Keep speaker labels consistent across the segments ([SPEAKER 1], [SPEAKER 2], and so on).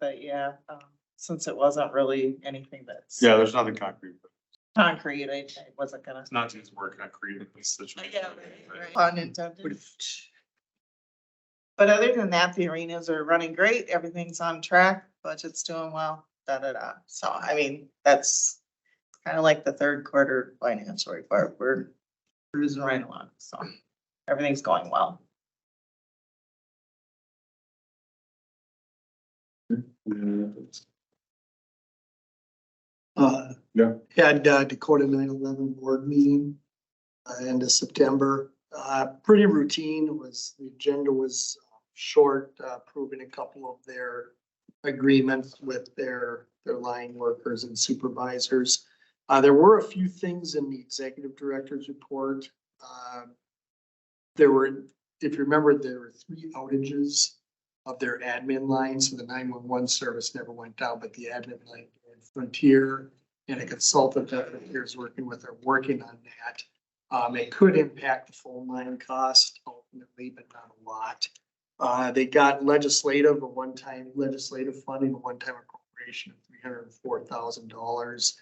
[SPEAKER 1] but yeah, um, since it wasn't really anything that's
[SPEAKER 2] Yeah, there's nothing concrete.
[SPEAKER 1] concrete, I I wasn't gonna.
[SPEAKER 2] It's not just work concrete in this situation.
[SPEAKER 1] Yeah, right, right. Pun intended. But other than that, the arenas are running great, everything's on track, budget's doing well, da, da, da. So, I mean, that's kind of like the third quarter financial report, we're cruising right along, so everything's going well.
[SPEAKER 3] Uh,
[SPEAKER 2] Yeah.
[SPEAKER 3] Had uh, Dakota nine eleven board meeting, uh, end of September. Uh, pretty routine, It was, the agenda was short, uh, approving a couple of their agreements with their, their line workers and supervisors. Uh, there were a few things in the executive director's report. Uh, There were, if you remember, there were three outages of their admin line, so the nine-one-one service never went down, but the admin line did. Frontier and a consultant that Frontier is working with are working on that. Um, it could impact the phone line cost ultimately, but not a lot. Uh, they got legislative, a one-time legislative funding, a one-time appropriation of three hundred and four thousand dollars.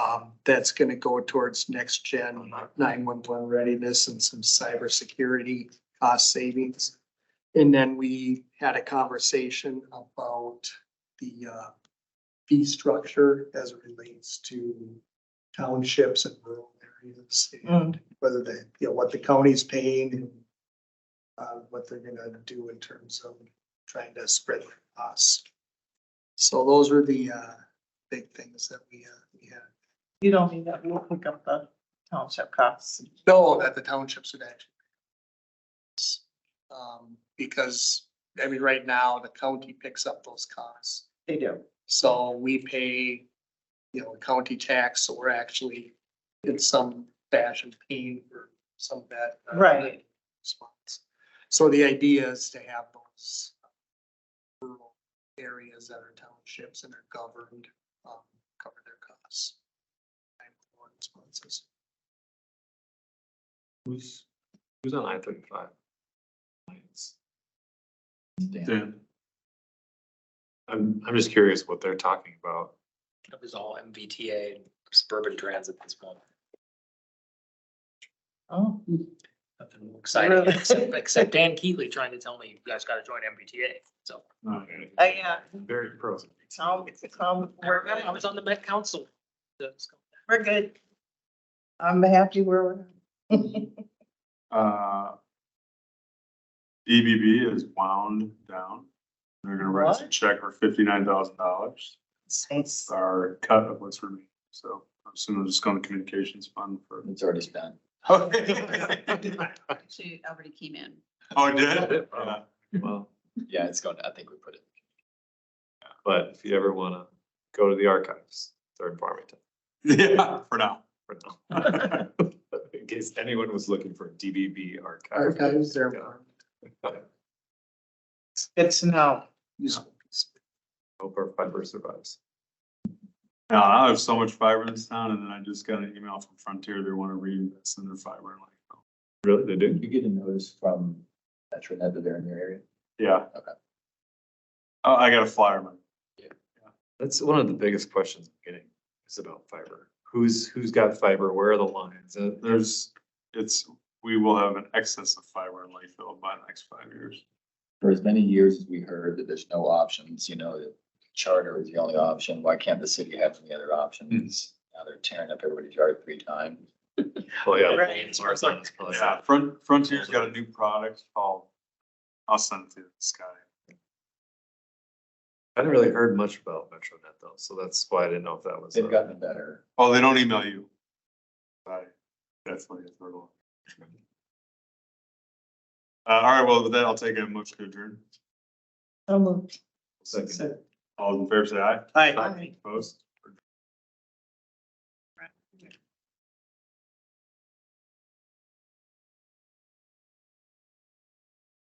[SPEAKER 3] Um, that's gonna go towards next gen nine-one-one readiness and some cybersecurity cost savings. And then we had a conversation about the uh, fee structure as it relates to townships and rural areas
[SPEAKER 1] Hmm. Mm,
[SPEAKER 3] and whether they, you know, what the county's paying and uh, what they're gonna do in terms of trying to spread the costs. So those were the uh, big things that we uh, we had.
[SPEAKER 1] You don't need that, we'll pick up the township costs.
[SPEAKER 3] No, that the townships would actually. Um, because, I mean, right now, the county picks up those costs,
[SPEAKER 1] They do.
[SPEAKER 3] so we pay, you know, county tax, so we're actually in some fashion paying for some of that. uh,
[SPEAKER 1] Right.
[SPEAKER 3] response. So the idea is to have those rural areas that are townships and are governed, um, cover their costs. And responses.
[SPEAKER 4] Who's, who's on I thirty-five?
[SPEAKER 2] Yeah.
[SPEAKER 4] I'm, I'm just curious what they're talking about.
[SPEAKER 5] It was all MBTA and suburban transit this month.
[SPEAKER 1] Oh,
[SPEAKER 5] Nothing exciting,
[SPEAKER 1] Really?
[SPEAKER 5] except, except Dan Keatley trying to tell me you guys gotta join MBTA, so.
[SPEAKER 1] Uh, yeah.
[SPEAKER 4] Very pros.
[SPEAKER 1] Tom, Tom, we're
[SPEAKER 5] I was
[SPEAKER 1] good,
[SPEAKER 5] on the Met Council. That's-
[SPEAKER 1] we're good. I'm happy we're.
[SPEAKER 2] Uh, EBB is wound down. They're gonna write us a
[SPEAKER 1] What?
[SPEAKER 2] check for fifty-nine thousand dollars.
[SPEAKER 1] It's-
[SPEAKER 2] Our cut of what's remaining. So I'm assuming it's going to communications fund for.
[SPEAKER 6] It's already spent.
[SPEAKER 2] Oh, it
[SPEAKER 7] Actually, it already came in.
[SPEAKER 2] did? Yeah.
[SPEAKER 4] Well,
[SPEAKER 6] Yeah, it's going, to I think we put it.
[SPEAKER 4] but if you ever wanna go to the archives, they're in Farmington
[SPEAKER 2] Yeah, for now.
[SPEAKER 4] for now. In case anyone was looking for DBB archive.
[SPEAKER 3] Archives there.
[SPEAKER 1] Good to know.
[SPEAKER 4] Hope our fiber survives.
[SPEAKER 2] Now, I have so much fiber in this town and then I just got an email from Frontier. They want to reinvest in their fiber. I'm like, oh,
[SPEAKER 4] Really, they do?
[SPEAKER 6] Did you get a notice from Metronet that they're in your area?
[SPEAKER 2] Yeah.
[SPEAKER 6] Okay.
[SPEAKER 2] Oh, I got a flyer, man.
[SPEAKER 4] That's one of the biggest questions I'm getting is about fiber. Who's, who's got fiber? Where are the lines? Uh, There's,
[SPEAKER 2] There's, it's, we will have an excess of fiber in Lakeville by the next five years.
[SPEAKER 6] For as many years as we heard that there's no options, you know, that charter is the only option. Why can't the city have any other options? Now they're tearing up everybody's yard three times.
[SPEAKER 4] well, yeah.
[SPEAKER 1] Right.
[SPEAKER 4] as far as I'm concerned.
[SPEAKER 2] Yeah, Front, Frontier's got a new product called, I'll send it to Sky.
[SPEAKER 4] I hadn't really heard much about MetroNet though, so that's why I didn't know if that was.
[SPEAKER 6] They've
[SPEAKER 4] a-
[SPEAKER 6] gotten better.
[SPEAKER 2] Oh, they don't email you. Right, definitely a hurdle. Uh, all right, well, with that, I'll take a motion to adjourn.
[SPEAKER 1] So moved.
[SPEAKER 4] Second.
[SPEAKER 2] All in favor, say aye.
[SPEAKER 1] Aye.
[SPEAKER 2] Opposed?